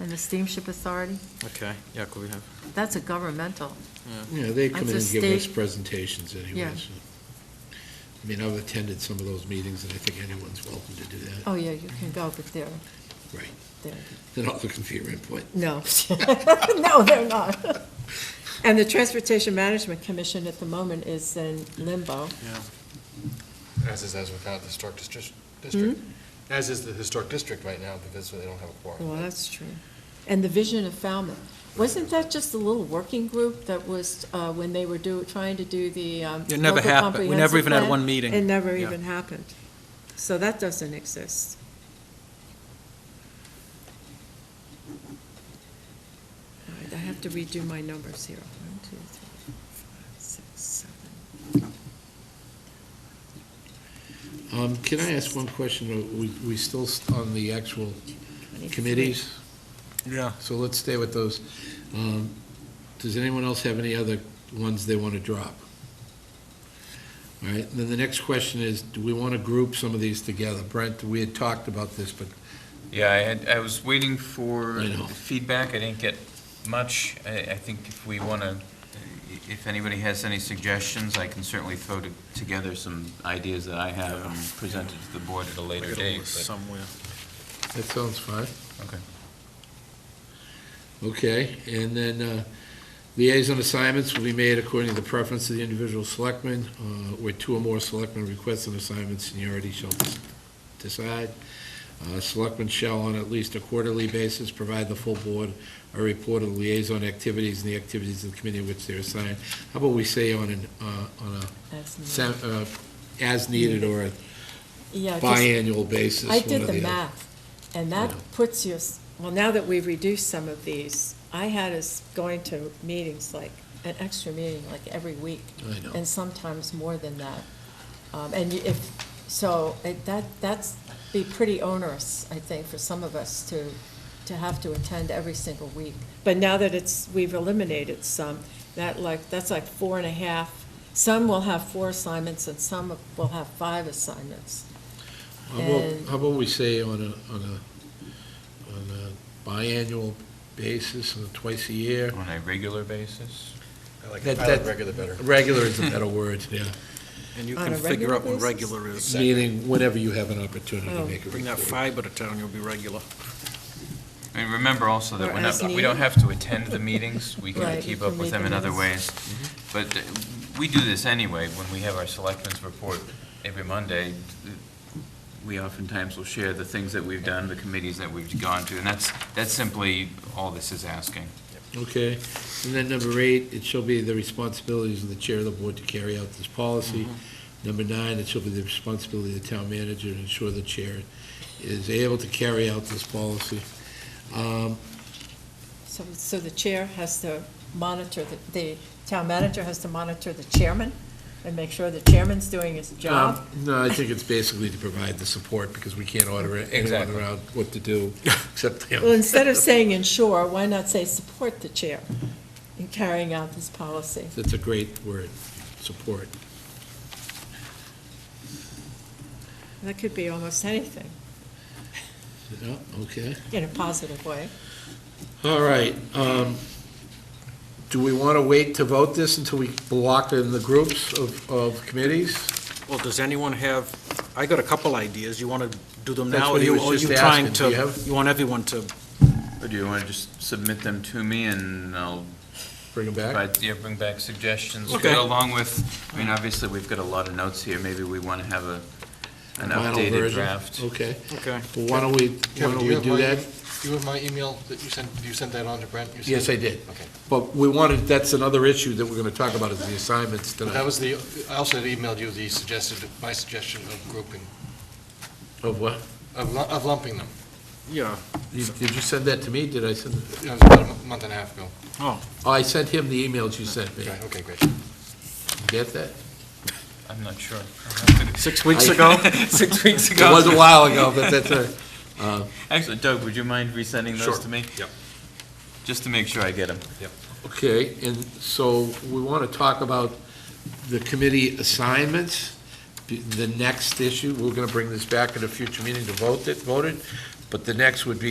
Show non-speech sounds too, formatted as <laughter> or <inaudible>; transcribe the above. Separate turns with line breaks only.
and the Steamship Authority.
Okay, yeah, could we have,
That's a governmental.
yeah.
Yeah, they come in and
That's a
give us
state-
presentations
Yeah.
anyways. I mean, I've attended some of those meetings, and I think anyone's welcome to do that.
Oh, yeah, you can go, but they're,
Right.
they're,
They're not looking for your input.
no. <laughs> No, they're not. And the Transportation Management Commission at the moment is in limbo.
As is, as with how the historic distri- district,
Hmm?
as is the historic district right now, because they don't have a quorum.
Well, that's true. And the vision of Falmouth. Wasn't that just a little working group that was, uh, when they were do, trying to do the, um,
It never
local
happened. We never
comprehensive
even had
plan?
one meeting.
It never
Yeah.
even happened. So that doesn't exist. All right, I have to redo my numbers here. One, two, three, five, six, seven.
Um, Can I ask one question? Are we- we still st- on the actual committees?
Yeah.
So let's stay with those. Um, Does anyone else have any other ones they want to drop? All right, then the next question is, do we want to group some of these together? Brent, we had talked about this, but
Yeah, I had, I was waiting for
I know.
feedback, I didn't get much. I, I think if we want to, if anybody has any suggestions, I can certainly throw to- together some ideas that I have and present it to the board at a later
Get a
date.
list
but-
Somewhere.
that sounds fine.
Okay.
Okay, and then uh, liaison assignments will be made according to the preference of the individual selectmen, uh, where two or more selectmen request an assignment, seniority shall dis- decide. Uh, Selectmen shall, on at least a quarterly basis, provide the full board a report of the liaison activities and the activities of the committee which they're assigned. How about we say on an, uh, on a,
That's me.
sem- uh, as needed or a
Yeah, just-
biannual basis,
I
one or
did the
the other.
math, and that
Yeah.
puts you, s- well, now that we've reduced some of these, I had us going to meetings like, an extra meeting like every week,
I know.
and sometimes more than that. Um, And you- if, so it- that, that's, be pretty onerous, I think, for some of us to, to have to attend every single week. But now that it's, we've eliminated some, that like, that's like four and a half, some will have four assignments and some will have five assignments.
How about,
And-
how about we say on a, on a, on a biannual basis, on a twice a year?
On a regular basis?
I like,
That-
I like
that-
regular better.
Regular is a
<laughs>
better word, yeah.
And you
On
can
a
figure
regular
out what
basis?
regular is.
Meaning whenever you have an opportunity to
Oh.
make a
Bring that
report.
fiber to town, you'll be regular.
And remember also
Or
that we're
as
not, we
needed.
don't have to attend the
<laughs>
meetings, we
Right,
can
we
keep
can
up with
make
them in other
amends.
ways. But uh, we do this anyway, when we have our selectmen's report every Monday, we oftentimes will share the things that we've done, the committees that we've gone to, and that's, that's simply all this is asking.
Okay, and then number eight, it shall be the responsibilities of the chair of the board to carry out this policy.
Mm-hmm.
Number nine, it shall be the responsibility of the town manager to ensure the chair is able to carry out this policy. Um,
So, so the chair has to monitor, the- the town manager has to monitor the chairman and make sure the chairman's doing his job?
Um, No, I think it's basically to provide the support, because we can't order anyone
Exactly.
around what to
<laughs>
do, except him.
Well, instead of saying ensure, why not say support the chair in carrying out this policy?
That's a great word, support.
That could be almost anything,
Yeah, okay.
in a positive way.
All right. um, Do we want to wait to vote this until we block in the groups of, of committees?
Well, does anyone have, I got a couple ideas. You want to do them
That's
now? or
what he
you-
was
or
just
you trying
asking. Do you
to-
have-
You want everyone to,
Or do you want to just submit them to me and I'll
Bring them back?
provide, yeah, bring back suggestions?
Okay.
Go Along with, I mean, obviously, we've got a lot of notes here, maybe we want to have a, an
Final
updated
version? Oh.
draft.
Okay.
okay.
Well, why don't we, why
Kevin,
don't
you
we
have
do
my- e-,
that?
Do you have my email that you sent, you sent that on to Brent? You
Yes, I
sent-
did.
Okay.
But we wanted, that's another issue that we're going to talk about is the assignments
But That
tonight.
was the, I also had emailed you the suggested, my suggestion of grouping,
Of what?
of lu- of lumping them.
Yeah.
You- Did you send that to me? Did I send, it?
It was about a mo- month and a half ago.
oh, I sent him the emails you sent me.
Okay, okay, great.
Get that?
I'm not sure. I'll have to-
Six weeks
<laughs>
ago?
Six weeks
It was a while ago, but that's all right.
Actually, Doug, would you mind resending
Sure.
those to me?
Yep.
Just to make sure I get them.
<laughs> Okay, and so we want to talk about the committee assignments, the- the next issue, we're going to bring this back at a future meeting to vote it, voted, but the next would be